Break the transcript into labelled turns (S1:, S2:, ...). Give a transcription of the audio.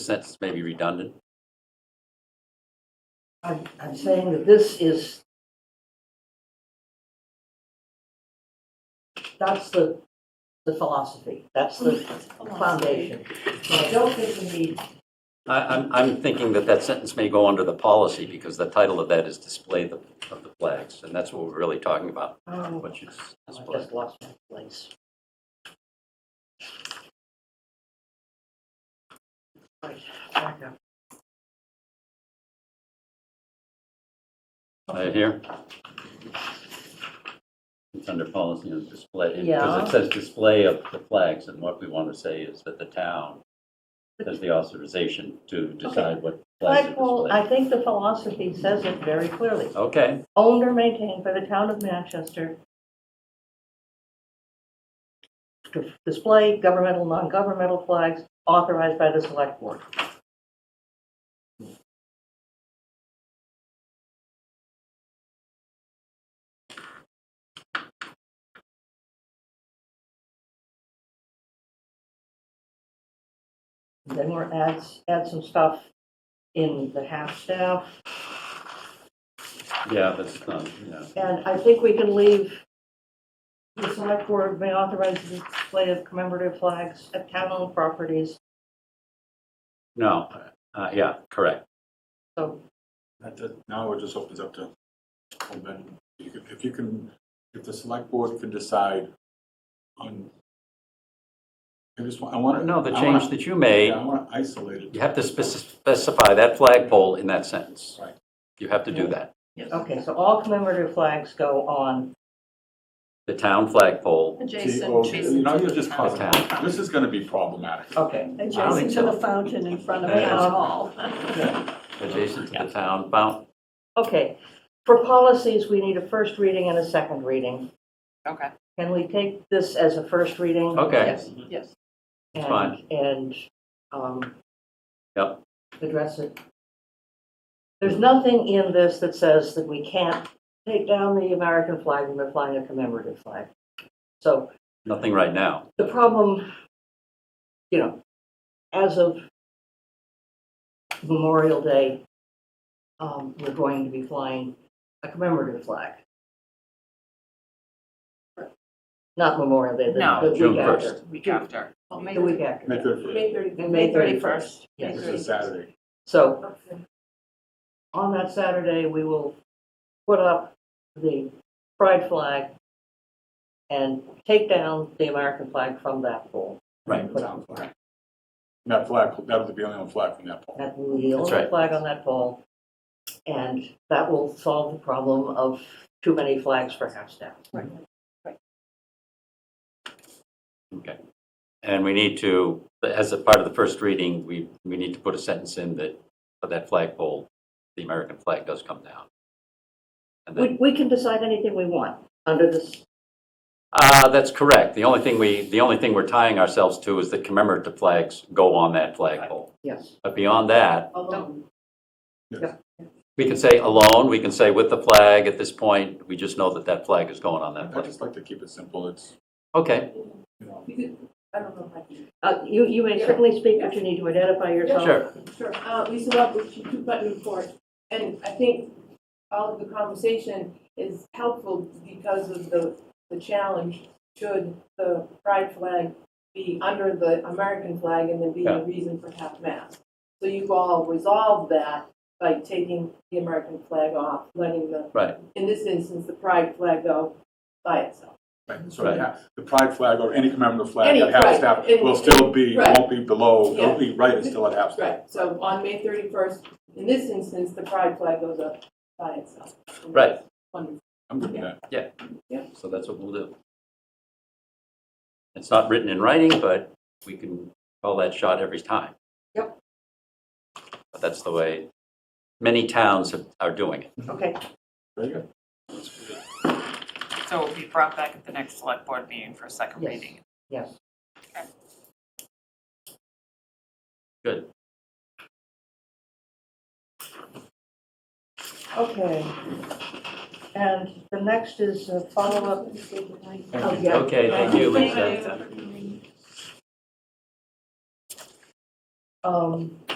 S1: sentence may be redundant.
S2: I'm, I'm saying that this is, that's the, the philosophy, that's the foundation. So I don't think we need,
S1: I, I'm, I'm thinking that that sentence may go under the policy because the title of that is display the- of the flags, and that's what we're really talking about,
S2: um,
S1: what you s-
S2: I
S1: display.
S2: just lost my place. Right, back up. Oh,
S1: Right here? It's under policy and display, because
S2: Yeah.
S1: it says display of the flags, and what we want to say is that the town has the authorization to decide what flags
S2: But,
S1: are
S2: well, I
S1: displayed.
S2: think the philosophy says it very clearly.
S1: Okay,
S2: owned or maintained by the town of Manchester to display governmental, non-governmental flags authorized by the select board. Then we're add, add some stuff in the half-staff.
S1: yeah, that's not, yeah.
S2: And I think we can leave, the select board may authorize the display of commemorative flags at town-owned properties,
S1: No, uh, yeah, correct.
S2: so,
S3: That, that, now it just opens up to, and then you could- if you can, if the select board can decide on, I just want, I want to.
S1: No, the change that you made
S3: Yeah, I want to isolate it.
S1: You have to speci- specify that flagpole in that sentence.
S3: Right.
S1: You have to do that.
S2: okay, so all commemorative flags go on.
S1: The town flagpole,
S3: Oh,
S4: Adjacent,
S3: You
S4: adjacent
S3: know,
S4: to
S3: you're
S4: the
S3: just
S4: town.
S3: causing, this is going to be problematic.
S2: Okay.
S4: Adjacent to the fountain in front of
S1: Yeah.
S4: Town Hall.
S1: adjacent to the town bound.
S2: Okay, for policies, we need a first reading and a second reading.
S4: Okay.
S2: Can we take this as a first reading?
S1: Okay,
S4: Yes, yes.
S2: And-
S1: fine.
S2: And, um.
S1: Yep.
S2: Address it. There's nothing in this that says that we can't take down the American flag when they're flying a commemorative flag. So
S1: nothing right now.
S2: the problem, you know, as of Memorial Day, um, we're going to be flying a commemorative flag. Not Memorial Day,
S4: No,
S2: the- the
S1: June
S2: week after.
S4: Week after. Oh, May
S2: The week after.
S3: Make it,
S2: And
S4: May
S2: May
S4: 31st.
S2: 31st.
S4: May
S3: this is Saturday.
S2: So on that Saturday, we will put up the pride flag and take down the American flag from that pole.
S1: Right.
S2: Put up
S3: Town flag. And That flag, that was the only one flag from that pole.
S2: that will be the
S1: That's
S2: only
S1: right.
S2: flag on that pole. And that will solve the problem of too many flags for half staff.
S1: Okay. And we need to, as a part of the first reading, we, we need to put a sentence in that, for that flagpole, the American flag does come down. And then
S2: We, we can decide anything we want under this,
S1: Uh, that's correct. The only thing we, the only thing we're tying ourselves to is that commemorative flags go on that flagpole.
S2: yes.
S1: But beyond that,
S4: Don't-
S1: We can say alone, we can say with the flag at this point, we just know that that flag is going on that
S3: I
S1: flag.
S3: just like to keep it simple, it's,
S1: Okay,
S3: you know,
S5: You could, I don't know if I can.
S2: Uh, you, you may certainly speak, but you need to identify yourself.
S1: sure.
S5: Sure, uh, Lisa Love, she two button report, and I think all of the conversation is helpful because of the, the challenge. Should the pride flag be under the American flag and there be
S1: Yeah.
S5: a reason for half mast? So you've all resolved that by taking the American flag off, letting the,
S1: Right.
S5: in this instance, the pride flag go by itself.
S3: right, so
S1: Right.
S3: yeah, the pride flag or any commemorative flag
S5: Any,
S3: at half
S5: right,
S3: staff
S5: and-
S3: will still be,
S5: right.
S3: won't be below, it'll
S5: Yeah.
S3: be right, it's still at half staff.
S5: Right, so on May thirty-first, in this instance, the pride flag goes up by itself.
S1: Right.
S5: Wonderful.
S3: I'm good with that.
S1: So that's what we'll do. It's not written in writing, but we can call that shot every time.
S2: Yep.
S1: But that's the way many towns have- are doing it.
S2: Okay,
S3: Very good.
S6: So it will be brought back at the next select board meeting for a second
S2: Yes.
S6: reading.
S2: yes.
S1: Good.
S2: Okay. And the next is a follow-up.
S3: Thank
S2: yeah.
S1: Okay, thank you, Lisa.
S2: Um,